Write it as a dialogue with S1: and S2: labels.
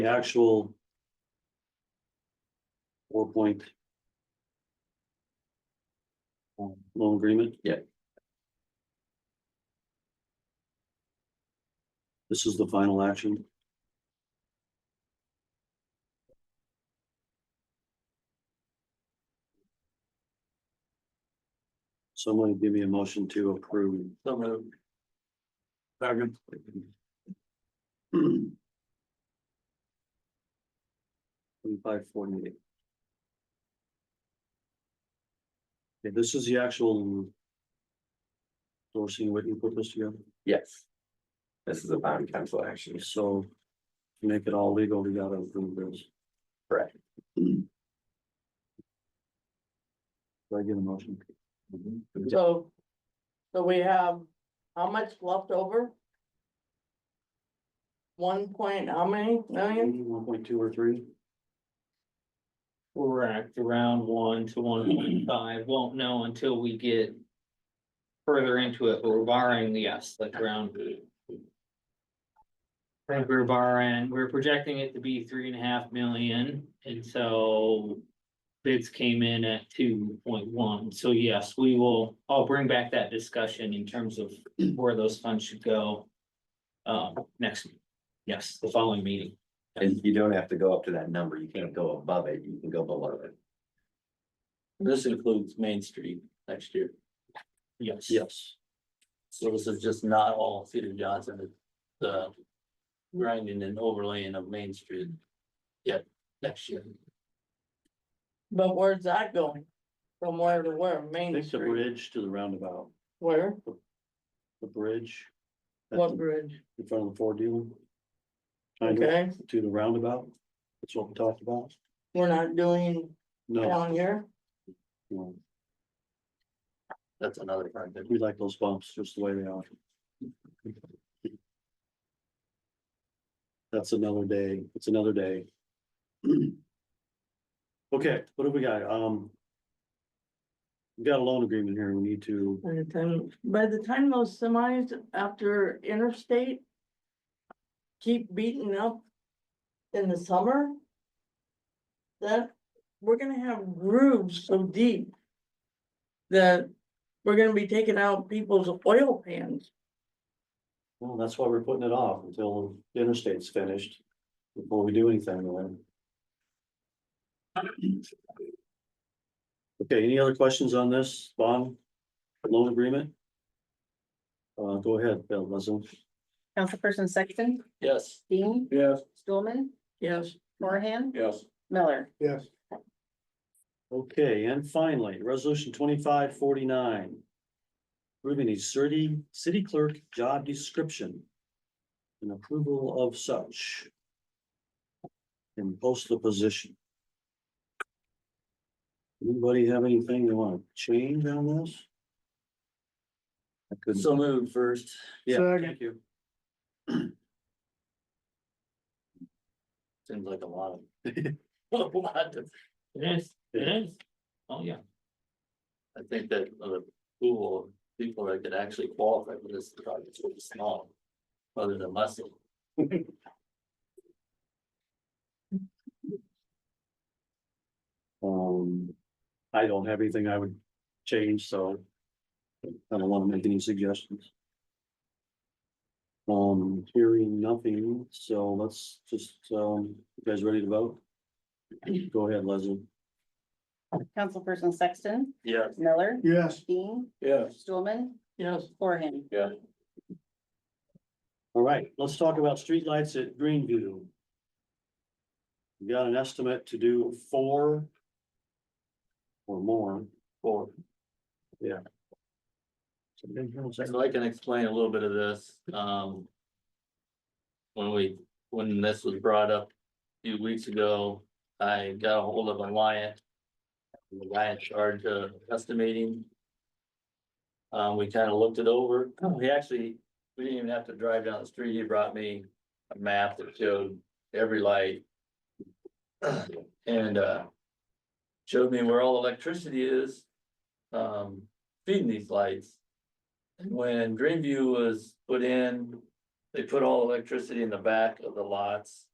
S1: the actual four point um, loan agreement?
S2: Yeah.
S1: This is the final action. Someone give me a motion to approve.
S2: So moved.
S1: Second. Twenty-five forty-eight. Okay, this is the actual. Dorsey, what you put this together,
S2: Yes. This is a bond council action.
S1: so to make it all legal, we gotta approve this.
S2: Correct.
S1: Do I get a motion?
S3: So, so we have, how much left over? One point, how many million?
S1: One point two or three?
S4: Correct, around one to one point five, won't know until we get. Further into it, but we're borrowing, yes, like around. I think we're borrowing, we're projecting it to be three and a half million, and so. Bids came in at two point one, so yes, we will, I'll bring back that discussion in terms of where those funds should go. Um, next, yes, the following meeting.
S2: And you don't have to go up to that number. You can't go above it. You can go below it.
S5: This includes Main Street next year,
S4: Yes.
S1: Yes.
S5: so this is just not all Cedar Johnson, it's the grinding and overlaying of Main Street. Yet, next year,
S3: But where's that going? From where to where? Main
S1: Take the
S3: Street?
S1: bridge to the roundabout,
S3: Where?
S1: the bridge. at
S3: What
S1: the-
S3: bridge?
S1: in front of the Ford dealer. Kind of
S3: Okay,
S1: to the roundabout, that's what we talked about,
S3: we're not doing
S1: no,
S3: down here?
S1: no,
S5: that's another project.
S1: we like those bumps just the way they are. That's another day, it's another day. Okay, what do we got, um? We got a loan agreement here, we need to,
S3: By the time, by the time those semis after interstate. Keep beating up in the summer. That, we're gonna have grooves so deep. That we're gonna be taking out people's oil pans.
S1: well, that's why we're putting it off until the interstate's finished, before we do anything with it. Okay, any other questions on this bond loan agreement? Uh, go ahead, Bill, Leslie.
S6: Councilperson Sexton,
S5: Yes.
S6: Dean,
S5: Yes.
S6: Stulman,
S3: Yes,
S6: Morahan,
S5: Yes.
S6: Miller.
S5: Yes.
S1: Okay, and finally, resolution twenty-five forty-nine. Approving a city, city clerk job description. And approval of such. And post the position. Anybody have anything they want to change on this? I couldn't,
S5: So moved first.
S1: yeah, thank you.
S5: Seems like a lot of. A lot of,
S4: It is, it is. Oh, yeah.
S5: I think that the pool, of people that could actually qualify for this project is small. Other than Leslie.
S1: Um, I don't have anything I would change, so. I don't wanna make any suggestions. Um, hearing nothing, so let's just, um, you guys ready to vote? Go ahead, Leslie.
S6: Councilperson Sexton,
S5: Yes.
S6: Miller,
S1: Yes.
S6: Dean,
S5: Yes.
S6: Stulman,
S3: yes.
S6: Morahan.
S1: All right, let's talk about streetlights at Greenview. We got an estimate to do four. Or more.
S5: Four. So I can explain a little bit of this, um. When we, when this was brought up a few weeks ago, I got a hold of Alliant. The guy in charge of estimating. Um, we kind of looked it over, we actually, we didn't even have to drive down the street, he brought me a map that showed every light. And, uh. Showed me where all electricity is, um, feeding these lights. And when Greenview was put in, they put all electricity in the back of the lots